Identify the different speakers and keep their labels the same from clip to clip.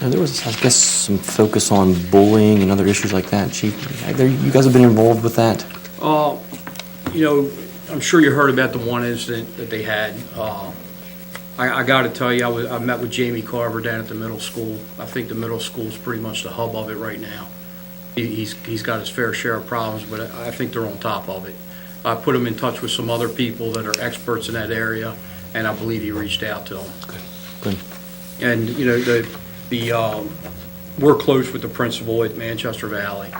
Speaker 1: Now, there was, I guess, some focus on bullying and other issues like that. Chief, there- you guys have been involved with that?
Speaker 2: Uh, You know, I'm sure you heard about the one incident that they had. Uh, I, I gotta tell you, I was, I met with Jamie Carver down at the middle school. I think the middle school's pretty much the hub of it right now. He- He's, he's got his fair share of problems, but I I think they're on top of it. I put him in touch with some other people that are experts in that area, and I believe he reached out to them.
Speaker 1: Good.
Speaker 2: And, you know, the, the, um, we're close with the principal at Manchester Valley.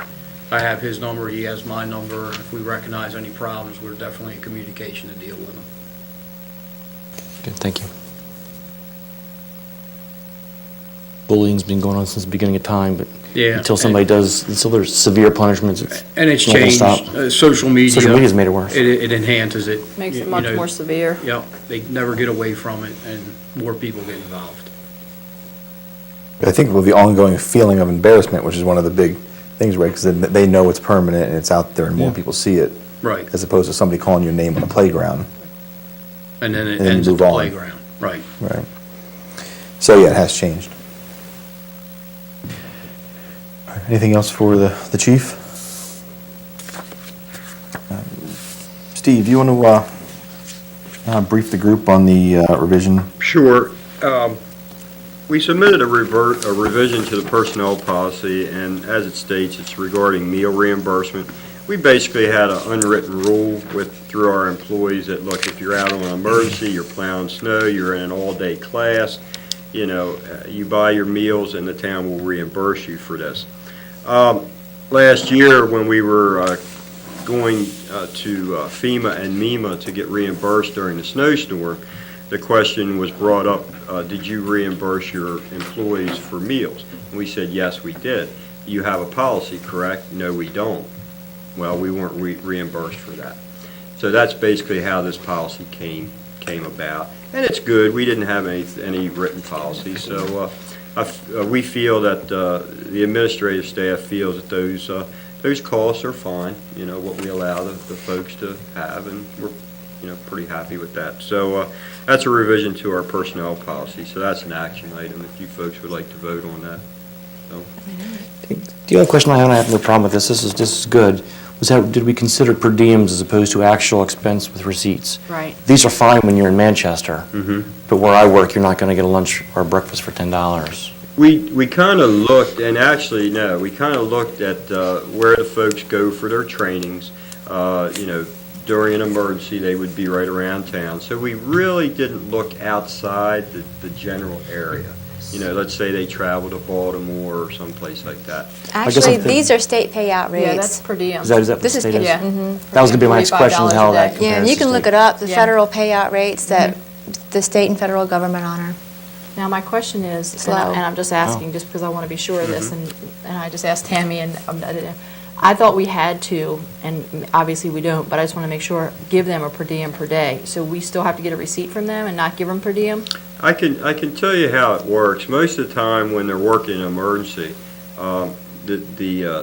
Speaker 2: I have his number, he has my number. If we recognize any problems, we're definitely in communication to deal with them.
Speaker 1: Good, thank you. Bullying's been going on since the beginning of time, but
Speaker 2: Yeah,
Speaker 1: until somebody does, until there's severe punishments, it's
Speaker 2: And it's
Speaker 1: not gonna
Speaker 2: changed,
Speaker 1: stop.
Speaker 2: Uh, social media.
Speaker 1: Social media's made it worse.
Speaker 2: It, it enhances it.
Speaker 3: Makes
Speaker 2: You-
Speaker 3: it
Speaker 2: you
Speaker 3: much
Speaker 2: know,
Speaker 3: more severe.
Speaker 2: Yep, they never get away from it, and more people get involved.
Speaker 4: I think with the ongoing feeling of embarrassment, which is one of the big things, right? Because they know it's permanent and it's out there, and more people see it,
Speaker 2: Right,
Speaker 4: as opposed to somebody calling your name on the playground,
Speaker 2: and then it
Speaker 4: And then
Speaker 2: ends at
Speaker 4: move
Speaker 2: the
Speaker 4: on.
Speaker 2: playground, right.
Speaker 4: right? So yeah, it has changed. All right, Anything else for the the chief? Um, Steve, you want to uh, uh, brief the group on the uh, revision?
Speaker 5: Sure. Um, We submitted a revert, a revision to the personnel policy, and as it states, it's regarding meal reimbursement. We basically had an unwritten rule with, through our employees that, look, if you're out on an emergency, you're plowing snow, you're in an all-day class, you know, uh, you buy your meals and the town will reimburse you for this. Um, Last year, when we were uh, going uh, to uh, FEMA and MEMA to get reimbursed during the snowstorm, the question was brought up, uh, did you reimburse your employees for meals? And we said, yes, we did. You have a policy, correct? No, we don't. Well, we weren't re- reimbursed for that. So that's basically how this policy came, came about. And it's good, we didn't have any, any written policy, so uh, I f- uh, we feel that uh, the administrative staff feels that those, uh, those costs are fine, you know, what we allow the the folks to have, and we're, you know, pretty happy with that. So uh, that's a revision to our personnel policy, so that's an action item, if you folks would like to vote on that.
Speaker 1: The other question I have, and I have no problem with this, this is, this is good, was how, did we consider per diems as opposed to actual expense with receipts?
Speaker 3: Right.
Speaker 1: These are fine when you're in Manchester.
Speaker 2: Mm-hmm.
Speaker 5: Mhm.
Speaker 1: But where I work, you're not gonna get a lunch or breakfast for ten dollars.
Speaker 5: We, we kind of looked, and actually, no, we kind of looked at uh, where the folks go for their trainings. Uh, You know, during an emergency, they would be right around town. So we really didn't look outside the, the general area. You know, let's say they travel to Baltimore or someplace like that.
Speaker 1: guess
Speaker 6: Actually,
Speaker 1: I'm thin-
Speaker 6: these are state payout
Speaker 3: Yeah, that's
Speaker 6: rates.
Speaker 3: per diem.
Speaker 1: Is that, is that what
Speaker 6: This
Speaker 1: the
Speaker 6: is Mm-hmm.
Speaker 1: state is?
Speaker 3: Yeah.
Speaker 1: That was gonna be my next question, is
Speaker 3: $45
Speaker 1: how
Speaker 3: a
Speaker 1: that
Speaker 3: day.
Speaker 6: Yeah,
Speaker 1: compares
Speaker 6: and
Speaker 1: to
Speaker 6: you can
Speaker 1: state.
Speaker 6: look it up, the
Speaker 3: Yeah. Mm-hmm.
Speaker 6: federal payout rates that the state and federal government honor.
Speaker 3: Now, my question is, and I-
Speaker 6: Slow.
Speaker 3: and I'm just
Speaker 1: Oh.
Speaker 3: asking, just because I want to be sure of this,
Speaker 1: Mm-hmm.
Speaker 3: and, and I just asked Tammy, and um, I didn't- I thought we had to, and obviously we don't, but I just want to make sure, give them a per diem per day. So we still have to get a receipt from them and not give them per diem?
Speaker 5: I can, I can tell you how it works. Most of the time, when they're working an emergency, um, the, the, uh,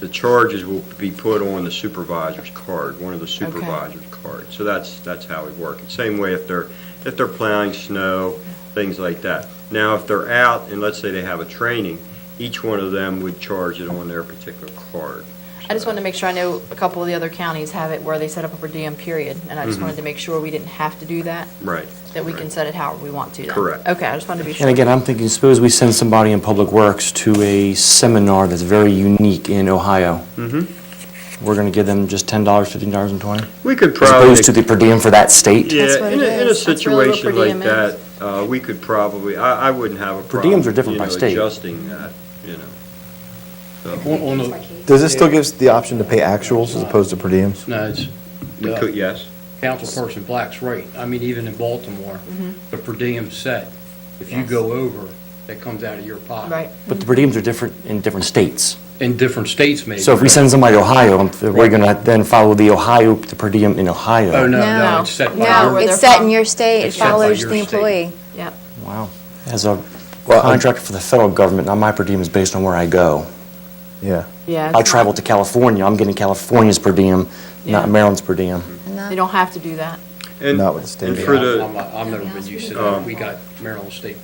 Speaker 5: the charges will be put on the supervisor's card, one of the supervisor's cards. So that's, that's how we work. Same way if they're, if they're plowing snow, things like that. Now, if they're out, and let's say they have a training, each one of them would charge it on their particular card.
Speaker 3: I just wanted to make sure, I know a couple of the other counties have it where they set up a per diem period, and I just
Speaker 2: Mm-hmm.
Speaker 3: wanted to make sure we didn't have to do that,
Speaker 5: Right.
Speaker 3: that we can set it however we want to. then.
Speaker 5: Correct.
Speaker 3: Okay, I just wanted to be sure.
Speaker 1: And again, I'm thinking, suppose we send somebody in Public Works to a seminar that's very unique in Ohio.
Speaker 5: Mm-hmm.
Speaker 1: We're gonna give them just ten dollars, fifteen dollars and twenty?
Speaker 5: We could
Speaker 1: As
Speaker 5: probably.
Speaker 1: opposed to the per diem for that state?
Speaker 5: Yeah,
Speaker 6: That's what
Speaker 5: in
Speaker 6: it
Speaker 5: a, in a
Speaker 6: is.
Speaker 3: That's really what per
Speaker 5: situation like
Speaker 3: diem is.
Speaker 5: that, uh, we could probably, I, I wouldn't have a
Speaker 1: Per
Speaker 5: problem.
Speaker 1: diems are different
Speaker 5: you
Speaker 1: by
Speaker 5: know,
Speaker 1: state.
Speaker 5: Adjusting that, you know. So,
Speaker 2: On- on the-
Speaker 4: Does this still give us the option to pay actuals as opposed to per diems?
Speaker 2: No, it's. uh,
Speaker 5: we could, yes.
Speaker 2: Councilperson Black's right. I mean, even in Baltimore,
Speaker 3: Mm-hmm.
Speaker 2: the per diem set, if you go over, that comes out of your pocket.
Speaker 3: Right.
Speaker 1: But the per diems are different in different states.
Speaker 2: In different states, maybe.
Speaker 1: So if we send somebody to Ohio, I'm- we're gonna then follow the Ohio, the per diem in Ohio.
Speaker 2: Oh, no, no,
Speaker 3: No.
Speaker 2: it's set by.
Speaker 3: No,
Speaker 2: your-
Speaker 3: where
Speaker 6: It's
Speaker 3: they're
Speaker 6: set
Speaker 3: from.
Speaker 6: in your state, it
Speaker 2: It's set by
Speaker 6: follows
Speaker 2: your
Speaker 6: the
Speaker 2: state.
Speaker 6: employee.
Speaker 3: Yep.
Speaker 1: Wow. As a
Speaker 4: Well, I-
Speaker 1: contractor for the federal government, now my per diem is based on where I go.
Speaker 4: Yeah.
Speaker 3: Yeah.
Speaker 1: I travel to California, I'm getting California's per diem,
Speaker 3: Yeah.
Speaker 1: not Maryland's per diem.
Speaker 6: And that-
Speaker 3: They don't have to do that.
Speaker 5: And-
Speaker 4: Not with the state.
Speaker 5: And
Speaker 2: Yeah,
Speaker 5: for the,
Speaker 2: I'm- I'm- I've never been used to that. We got Maryland State